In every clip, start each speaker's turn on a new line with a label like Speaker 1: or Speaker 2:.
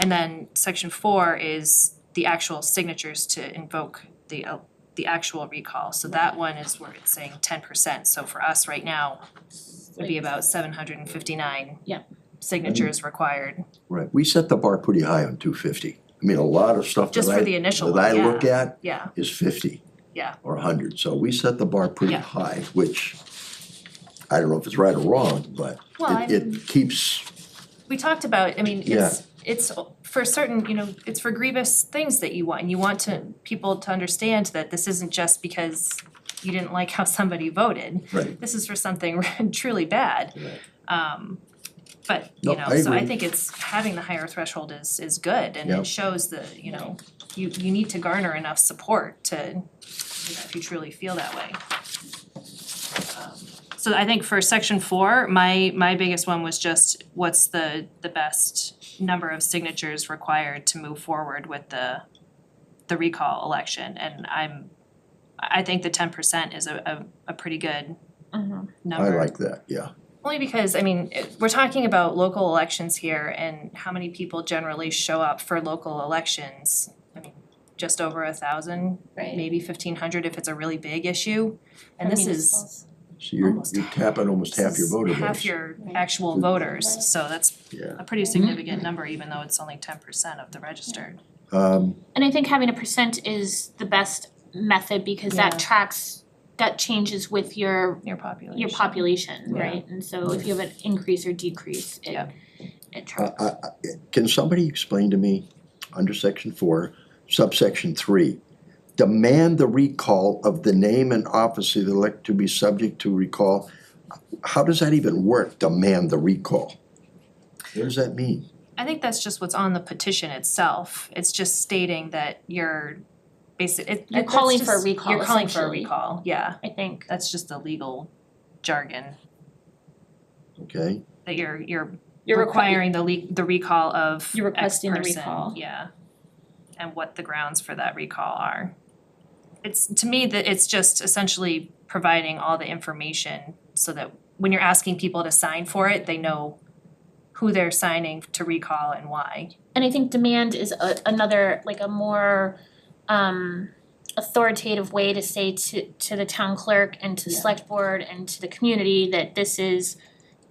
Speaker 1: And then section four is the actual signatures to invoke the uh, the actual recall. So that one is where it's saying ten percent. So for us right now, would be about seven hundred and fifty-nine
Speaker 2: Yeah.
Speaker 1: signatures required,
Speaker 3: Right, we set the bar pretty high on two fifty. I mean, a lot of stuff that
Speaker 1: Just for
Speaker 3: I,
Speaker 1: the initial
Speaker 3: that I
Speaker 1: one,
Speaker 3: look at
Speaker 1: yeah.
Speaker 3: is fifty.
Speaker 1: Yeah.
Speaker 3: Or hundred, so we set the bar pretty
Speaker 1: Yeah.
Speaker 3: high, which I don't know if it's right or wrong, but
Speaker 1: Well, I
Speaker 3: it it keeps,
Speaker 1: we talked about, I mean, it's it's for certain, you know, it's for grievous things that you want, and you want to people to understand that this isn't just because you didn't like how somebody voted.
Speaker 3: right,
Speaker 1: This is for something truly bad.
Speaker 3: Right.
Speaker 1: Um but,
Speaker 3: No,
Speaker 1: you know,
Speaker 3: I
Speaker 1: so I
Speaker 3: agree.
Speaker 1: think it's having the higher threshold is is good and
Speaker 3: Yeah.
Speaker 1: it shows the, you know, you you need to garner enough support to, you know, if you truly feel that way. Um, So I think for section four, my my biggest one was just what's the the best number of signatures required to move forward with the the recall election and I'm I I think the ten percent is a a a pretty good
Speaker 3: I
Speaker 1: number.
Speaker 3: like that, yeah.
Speaker 1: Only because, I mean, it- we're talking about local elections here and how many people generally show up for local elections. I mean, just over a thousand,
Speaker 2: Right.
Speaker 1: maybe fifteen hundred if it's a really big issue. And this is,
Speaker 3: So you're
Speaker 1: Almost
Speaker 3: you're tapping almost half
Speaker 1: this
Speaker 3: your
Speaker 1: is
Speaker 3: voter base.
Speaker 1: half your
Speaker 2: Right.
Speaker 1: actual
Speaker 2: Right.
Speaker 1: voters, so that's
Speaker 3: Yeah,
Speaker 1: a pretty significant number, even though it's only ten percent of the registered.
Speaker 3: um,
Speaker 2: And I think having a percent is the best method because
Speaker 1: Yeah.
Speaker 2: that tracks, that changes with your
Speaker 1: Your population.
Speaker 2: your population,
Speaker 1: Yeah.
Speaker 2: right? And so if you have an increase or decrease, it
Speaker 1: Yeah.
Speaker 2: it
Speaker 3: I,
Speaker 2: tracks.
Speaker 3: I, I- can somebody explain to me, under section four, subsection three, demand the recall of the name and office of the elect to be subject to recall? How does that even work, demand the recall? What does that mean?
Speaker 1: I think that's just what's on the petition itself. It's just stating that you're basic, it,
Speaker 2: You're
Speaker 1: that's
Speaker 2: calling for a
Speaker 1: just-
Speaker 2: recall,
Speaker 1: You're calling for a
Speaker 2: essentially.
Speaker 1: recall, yeah.
Speaker 2: I think.
Speaker 1: That's just the legal jargon,
Speaker 3: Okay,
Speaker 1: that you're, you're requiring the le- the recall of
Speaker 2: You're
Speaker 1: X
Speaker 2: requesting the
Speaker 1: person,
Speaker 2: recall.
Speaker 1: Yeah. And what the grounds for that recall are. It's, to me, that it's just essentially providing all the information so that when you're asking people to sign for it, they know who they're signing to recall and why.
Speaker 2: And I think demand is a, another, like a more um authoritative way to say to to the town clerk and to
Speaker 1: Yeah.
Speaker 2: select board and to the community that this is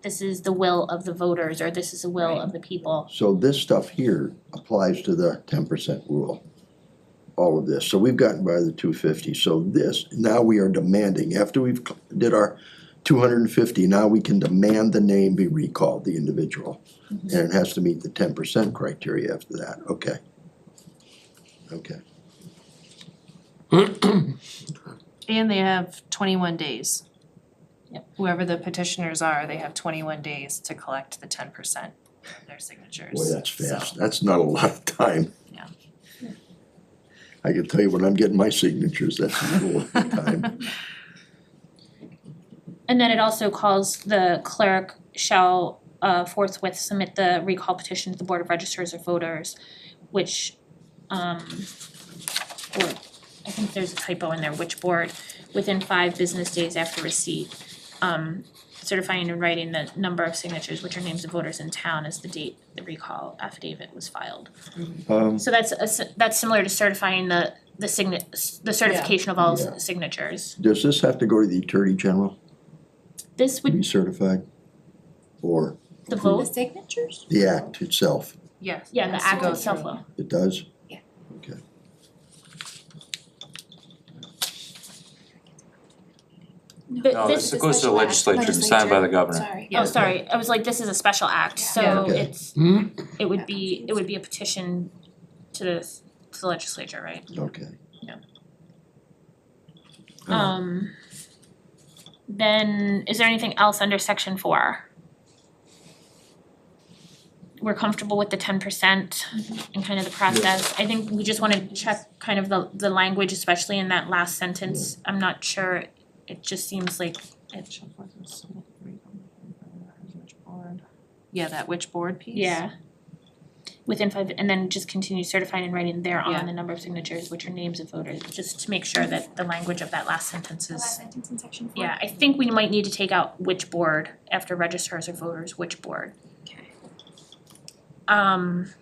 Speaker 2: this is the will of the voters or this is the will of the people.
Speaker 3: so this stuff here applies to the ten percent rule. All of this, so we've gotten by the two fifty, so this, now we are demanding, after we've c- did our two hundred and fifty, now we can demand the name be recalled, the individual. And it has to meet the ten percent criteria after that, okay. Okay,
Speaker 1: And they have twenty-one days.
Speaker 2: Yep.
Speaker 1: Whoever the petitioners are, they have twenty-one days to collect the ten percent of their signatures.
Speaker 3: boy, that's
Speaker 1: So-
Speaker 3: fast, that's not a lot of time.
Speaker 1: Yeah.
Speaker 3: I can tell you when I'm getting my signatures, that's not a lot of time,
Speaker 2: And then it also calls the clerk shall uh forthwith submit the recall petition to the Board of Registers of Voters, which um or I think there's a typo in there, which board, within five business days after receipt. Um certifying and writing the number of signatures, which are names of voters in town as the date the recall affidavit was filed.
Speaker 3: um,
Speaker 2: So that's a s- that's similar to certifying the the signa- the certification of all
Speaker 3: Yeah.
Speaker 2: s- signatures.
Speaker 3: does this have to go to the attorney general
Speaker 2: This
Speaker 3: to
Speaker 2: would,
Speaker 3: be certified? Or
Speaker 2: the vote,
Speaker 4: signatures?
Speaker 3: the act itself,
Speaker 1: Yes.
Speaker 2: yeah,
Speaker 1: Has
Speaker 2: the
Speaker 1: to
Speaker 2: act
Speaker 1: go
Speaker 2: itself
Speaker 1: through.
Speaker 2: will.
Speaker 3: it does?
Speaker 4: Yeah.
Speaker 3: Okay,
Speaker 2: But
Speaker 5: No,
Speaker 2: this
Speaker 5: this goes to the
Speaker 4: Legislature.
Speaker 5: legislature and signed by the governor.
Speaker 4: Sorry.
Speaker 1: Yeah.
Speaker 2: Oh, sorry, I was like, this is a special act,
Speaker 3: Yeah.
Speaker 2: so
Speaker 3: Okay.
Speaker 2: it's, it would be, it would be a petition to the, to the legislature, right?
Speaker 3: okay. Uh,
Speaker 2: Yeah.
Speaker 3: All right.
Speaker 2: Um, then, is there anything else under section four? We're comfortable with the ten percent and kind of the process, I think we just wanna check kind of the, the language, especially in that last sentence, I'm not sure, it just seems like it,
Speaker 1: Yeah, that which board piece?
Speaker 2: Yeah. Within five, and then just continue certifying and writing
Speaker 1: Yeah.
Speaker 2: thereon the number of signatures, which are names of voters, just to make sure that the language of that last sentence
Speaker 4: The last
Speaker 2: is.
Speaker 4: sentence in section four.
Speaker 2: Yeah, I think we might need to take out which board after registrars or voters, which board.
Speaker 4: Okay.
Speaker 2: Um,